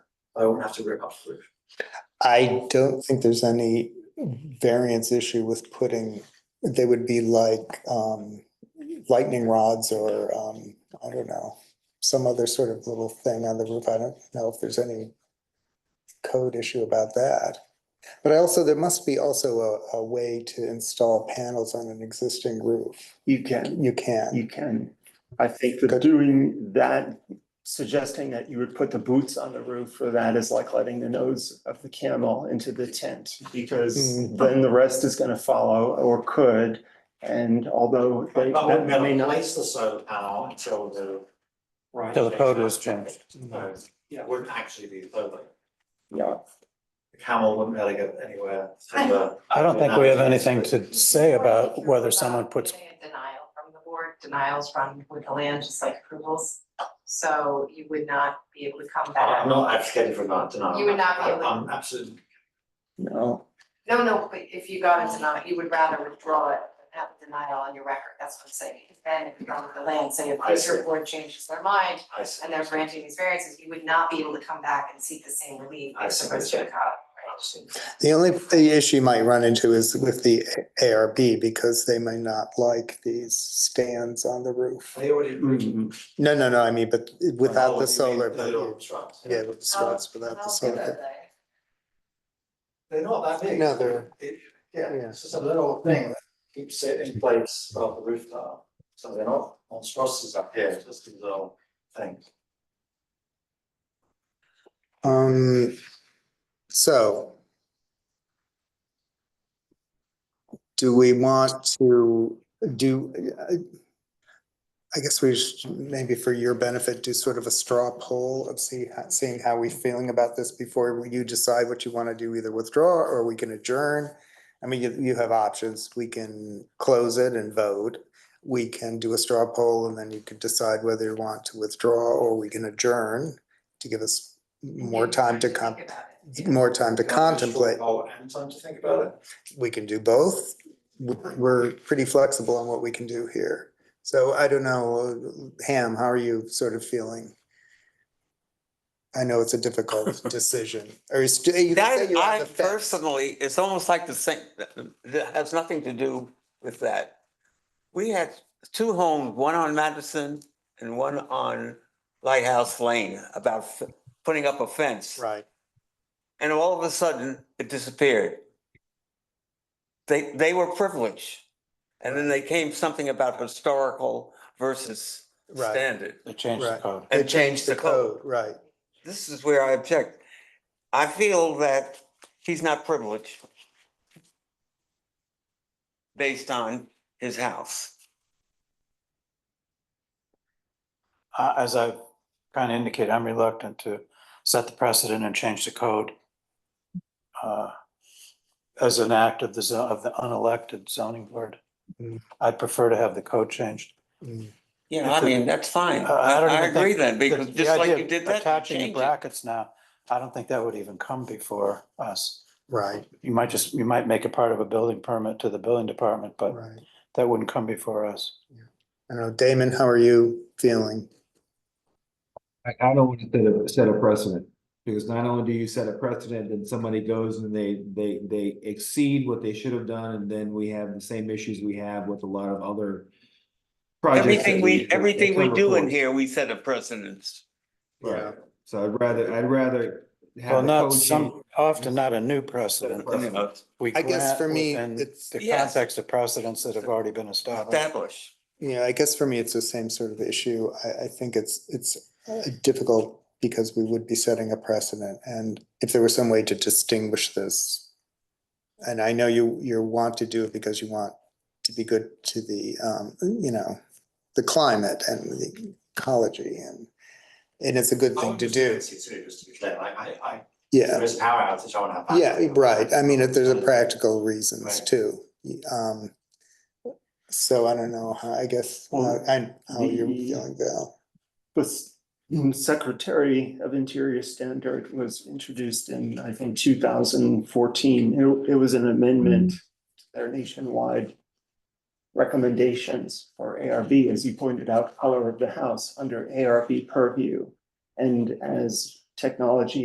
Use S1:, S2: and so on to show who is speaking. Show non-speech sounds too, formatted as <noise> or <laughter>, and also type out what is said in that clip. S1: I won't have to rip up the roof.
S2: I don't think there's any variance issue with putting, they would be like um lightning rods or um, I don't know, some other sort of little thing on the roof. I don't know if there's any code issue about that. But I also, there must be also a a way to install panels on an existing roof.
S3: You can,
S2: You can.
S3: you can. I think that doing that, suggesting that you would put the boots on the roof for that is like letting the nose of the camel into the tent. Because
S2: Mm.
S3: then the rest is gonna follow or could. And although they,
S1: But we're
S3: that may
S1: gonna
S3: not,
S1: place the solar panel until the. Right.
S4: Till the code was changed.
S1: So, yeah, it wouldn't actually be solar.
S3: yeah,
S1: The camel wouldn't really go anywhere.
S5: <laughs>
S1: uh,
S4: I
S1: I
S4: don't think we have anything to say about whether someone puts,
S5: Getting a Denial from the board, denials from with the land, just like approvals. So you would not be able to come
S1: I'm
S5: back.
S1: not advocating for that denial.
S5: You would not be
S1: I-
S5: able-
S1: I'm absolutely,
S3: no.
S5: No, no, but if you got a denial, you would rather withdraw it than have a denial on your record. That's what I'm saying. Then if you come with the land, say if
S1: I see.
S5: your board changes their mind
S1: I see.
S5: and they're granting these variances, you would not be able to come back and seek the same relief
S1: I
S5: as
S1: see.
S5: opposed to a cop.
S2: The only the issue you might run into is with the ARB because they may not like these stands on the roof.
S1: They already.
S3: Mm,
S2: No, no, no, I mean, but
S1: Oh,
S2: without
S1: you
S2: the
S1: mean
S2: solar,
S1: The little
S2: but
S1: trucks.
S2: yeah, with the spots, without the solar.
S1: They're not that big.
S2: No, they're-
S1: It- Yeah,
S2: yeah.
S1: it's just a little thing that keeps it in place above the roof tile, so they're not monstrosities up here, it's just these little things.
S2: Um, so. Do we want to do, I- I guess we should, maybe for your benefit, do sort of a straw poll of see, seeing how we feeling about this before you decide what you want to do, either withdraw or we can adjourn. I mean, you, you have options. We can close it and vote. We can do a straw poll and then you could decide whether you want to withdraw or we can adjourn to give us more time to comp,
S5: Think about it.
S2: more time to
S1: Can I just
S2: contemplate.
S1: roll And time to think about it.
S2: We can do both. We're we're pretty flexible on what we can do here. So I don't know, Ham, how are you sort of feeling? I know it's a
S6: <laughs>
S2: difficult decision, or is, you can say
S6: That,
S2: you have
S6: I
S2: the fence.
S6: personally, it's almost like the same, that has nothing to do with that. We had two homes, one on Madison and one on Lighthouse Lane, about f- putting up a fence.
S2: Right,
S6: And all of a sudden, it disappeared. They, they were privileged. And then they came something about historical versus
S2: Right.
S6: standard
S4: they changed the
S2: Right.
S4: code.
S6: and changed the code.
S2: right.
S6: This is where I object. I feel that he's not privileged based on his house.
S4: Uh, As I kind of indicated, I'm reluctant to set the precedent and change the code uh, as an act of the, zo- of the unelected zoning board.
S2: Mm.
S4: I'd prefer to have the code changed.
S2: Mm.
S6: You know, I mean, that's fine.
S4: Uh, I
S6: I
S4: don't
S6: I
S4: even think
S6: agree then,
S4: The-
S6: because
S4: the
S6: just like
S4: idea
S6: you
S4: of
S6: did that, you
S4: Attaching the
S6: change it.
S4: brackets now, I don't think that would even come before us.
S2: Right,
S4: You might just, you might make it part of a building permit to the building department, but
S2: right.
S4: that wouldn't come before us.
S2: I don't know, Damon, how are you feeling?
S7: I, I don't want to set a, set a precedent, because not only do you set a precedent, then somebody goes and they, they, they exceed what they should have done, and then we have the same issues we have with a lot of other projects that
S6: Everything we,
S7: that
S6: everything we
S7: come
S6: do in
S7: before.
S6: here, we set a precedence.
S7: Right, so I'd rather, I'd rather have.
S4: Well,
S7: the
S4: not
S7: code
S4: some,
S7: change.
S4: often not a new precedent.
S7: Precedent.
S4: We
S2: I guess
S4: grant
S2: for me,
S4: within
S2: it's-
S4: The
S6: Yes.
S4: context of precedents that have already been established.
S6: Establish.
S2: Yeah, I guess for me, it's the same sort of issue. I, I think it's, it's uh, difficult because we would be setting a precedent. And if there was some way to distinguish this, and I know you, you want to do it because you want to be good to the, um, you know, the climate and the ecology and, and it's a good thing to do.
S1: Too, just to be clear, like, I, I,
S2: Yeah.
S1: there is power outage, I wanna have. that.
S2: Yeah, right. I mean, if there's a practical reasons
S1: Right.
S2: too. Um, so I don't know how, I guess, uh,
S3: Well,
S2: I, how you're
S3: the-
S2: feeling, Val.
S3: But s- mm, Secretary of Interior Standard was introduced in, I think, two thousand fourteen. It, it was an amendment to their nationwide recommendations for ARB, as you pointed out, color of the house under ARB purview. And as technology